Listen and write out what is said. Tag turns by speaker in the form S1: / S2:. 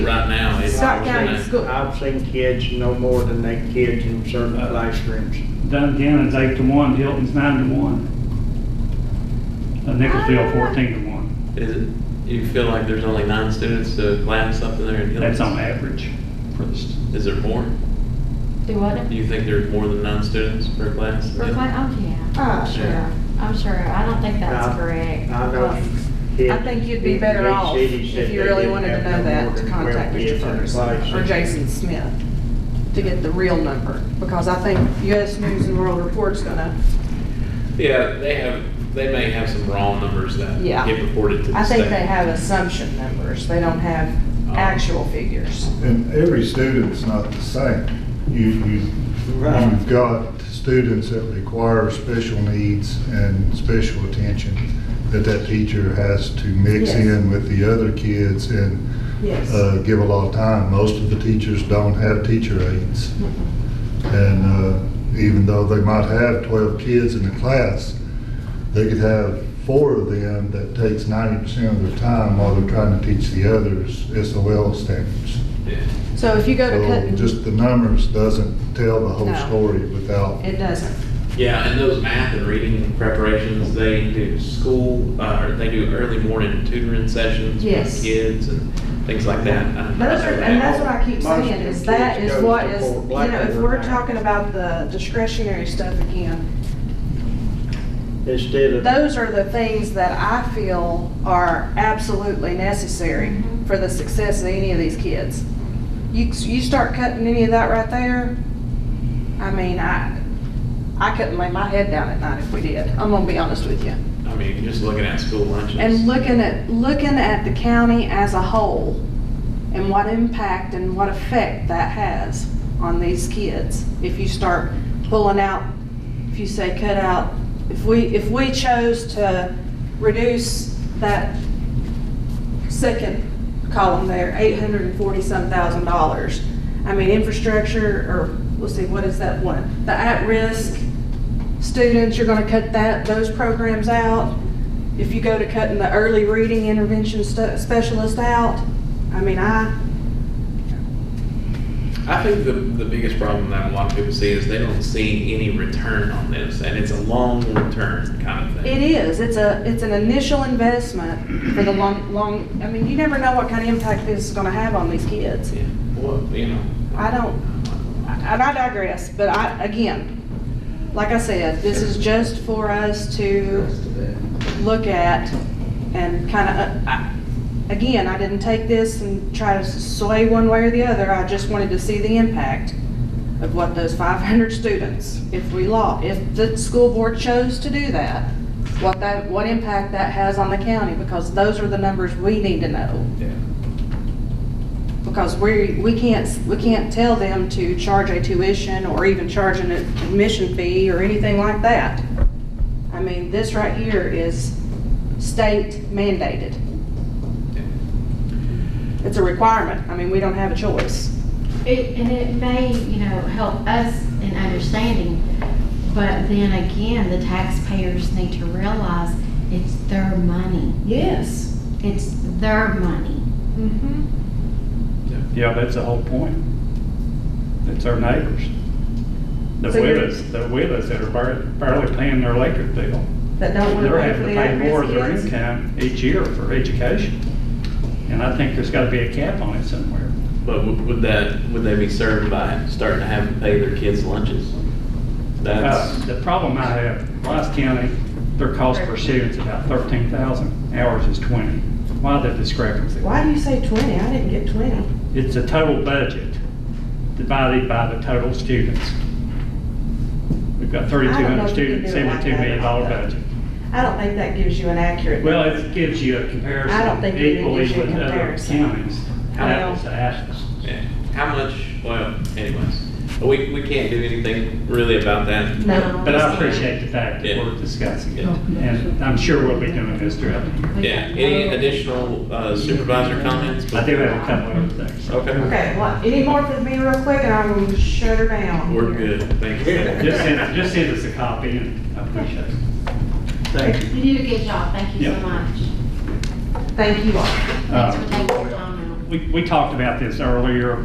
S1: Scott County
S2: I've seen-
S1: School.
S2: I've seen kids no more than eight kids in certain classrooms.
S3: Duncannon's eight to one, Hilton's nine to one. Uh,
S1: Oh.
S3: Nicholsville fourteen to one.
S4: Is it, you feel like there's only nine students to class up in there in Hillings?
S3: That's on average for the, s-
S4: Is there more?
S5: Do what?
S4: Do you think there's more than nine students per class? in
S5: For
S4: Hillings?
S5: Clay, oh, yeah,
S1: Oh,
S4: Yeah.
S1: sure.
S5: I'm sure, I don't think that's
S2: Now,
S5: correct.
S2: I know
S5: Well,
S2: kids-
S1: I think you'd be better
S2: big
S1: off
S2: cities said
S1: if you
S2: they
S1: really
S2: didn't
S1: wanted to
S2: have
S1: know
S2: no more
S1: that to
S2: than
S1: contact
S2: 12
S1: Mr.
S2: kids in a
S1: Ferguson or
S2: classroom.
S1: Jason Smith to get the real number, because I think US News and World Report's gonna,
S4: Yeah, they have, they may have some raw numbers that
S1: Yeah.
S4: get reported to the
S1: I
S4: state.
S1: think they have assumption numbers, they don't have actual figures.
S6: And every student's not the same. You, you,
S2: Right.
S6: you've got students that require special needs and special attention that that teacher has to mix
S1: Yes.
S6: in with the other kids and, uh, give a lot of time. Most of the teachers don't have teacher aides. And, uh, even though they might have twelve kids in the class, they could have four of them that takes ninety percent of their time while they're trying to teach the others SOL standards.
S4: Yeah.
S1: So if you go to
S6: So
S1: Cutting,
S6: just the numbers doesn't tell the whole
S1: No.
S6: story without,
S1: it doesn't.
S4: Yeah, and those math and reading preparations, they do school, uh, or they do early morning tutoring sessions with
S1: Yes.
S4: kids and things like that. I don't know
S1: Those are,
S4: that.
S1: and that's what I keep
S2: Most
S1: saying, is
S2: kids
S1: that is
S2: goes
S1: what
S2: to
S1: is, you
S2: Fort Black
S1: know, if
S2: over
S1: we're
S2: there.
S1: talking about the discretionary stuff again,
S2: Instead of.
S1: those are the things that I feel are absolutely necessary
S5: Mhm.
S1: for the success of any of these kids. You, you start cutting any of that right there, I mean, I, I couldn't lay my head down at night if we did, I'm gonna be honest with you.
S4: I mean, just looking at school lunches.
S1: And looking at, looking at the county as a whole and what impact and what effect that has on these kids. If you start pulling out, if you say cut out, if we, if we chose to reduce that second column there, eight hundred and forty-some thousand dollars. I mean, infrastructure, or, let's see, what is that one? The at-risk students, you're gonna cut that, those programs out. If you go to cutting the early reading intervention stu- specialist out, I mean, I,
S4: I think the, the biggest problem that a lot of people see is they don't see any return on this, and it's a long return kind of
S1: it
S4: thing.
S1: is, it's a, it's an initial investment for the long, long, I mean, you never know what kind of impact this is gonna have on these kids.
S4: Yeah, well, you know.
S1: I don't, and I digress, but I, again, like I said, this is just for us to look at and kind of, again, I didn't take this and try to sway one way or the other. I just wanted to see the impact of what those 500 students, if we law, if the school board chose to do that, what that, what impact that has on the county, because those are the numbers we need to know
S4: Yeah.
S1: because we, we can't, we can't tell them to charge a tuition or even charge an admission fee or anything like that. I mean, this right here is state mandated. It's a requirement. I mean, we don't have a choice.
S5: It, and it may, you know, help us in understanding, but then again, the taxpayers need to realize it's their money.
S1: Yes.
S5: It's their money.
S3: yeah, that's the whole point. It's our neighbors. The
S1: So you're-
S3: widows, the widows that are bar- barely paying their electric bill.
S1: That don't want to pay
S3: They're
S1: for
S3: having to
S1: the
S3: pay more of their
S1: at-risk kids.
S3: income each year for education. And I think there's gotta be a cap on it somewhere.
S4: But would would that, would they be served by starting to have to pay their kids lunches?
S3: Uh,
S4: That's,
S3: The problem I have, Rice County, their cost per student is about thirteen thousand, ours is twenty. Why the discrepancy?
S1: Why do you say 20? I didn't get 20.
S3: It's the total budget divided by the total students. We've got thirty-two
S1: I don't know
S3: hundred
S1: if you can do
S3: students,
S1: it like
S3: seventy-two million dollar
S1: that.
S3: budget.
S1: I don't think that gives you an accurate.
S3: Well, it gives you a
S1: I don't
S3: comparison
S1: think it
S3: equally
S1: gives you a
S3: with other
S1: comparison.
S3: counties,
S1: Well-
S3: apples to apples.
S4: yeah. how much, well, anyways, we, we can't do anything really about that.
S5: No.
S3: But I appreciate the fact that
S4: Yeah.
S3: we're discussing it,
S4: Yeah.
S3: and I'm sure we'll be doing this throughout the year.
S4: Yeah, any additional uh, supervisor comments?
S3: I do have a couple of other things.
S4: Okay,
S1: Okay, well, any more for me real quick and I'm gonna shut her down.
S4: we're good, thank you.
S3: Just send, just send us a copy, and I appreciate it.
S2: Thank you.
S5: You did a good job, thank you so
S3: Yeah.
S5: much.
S1: Thank you all.
S5: Thanks
S3: Uh,
S5: for taking the time out.
S3: we, we talked about this earlier,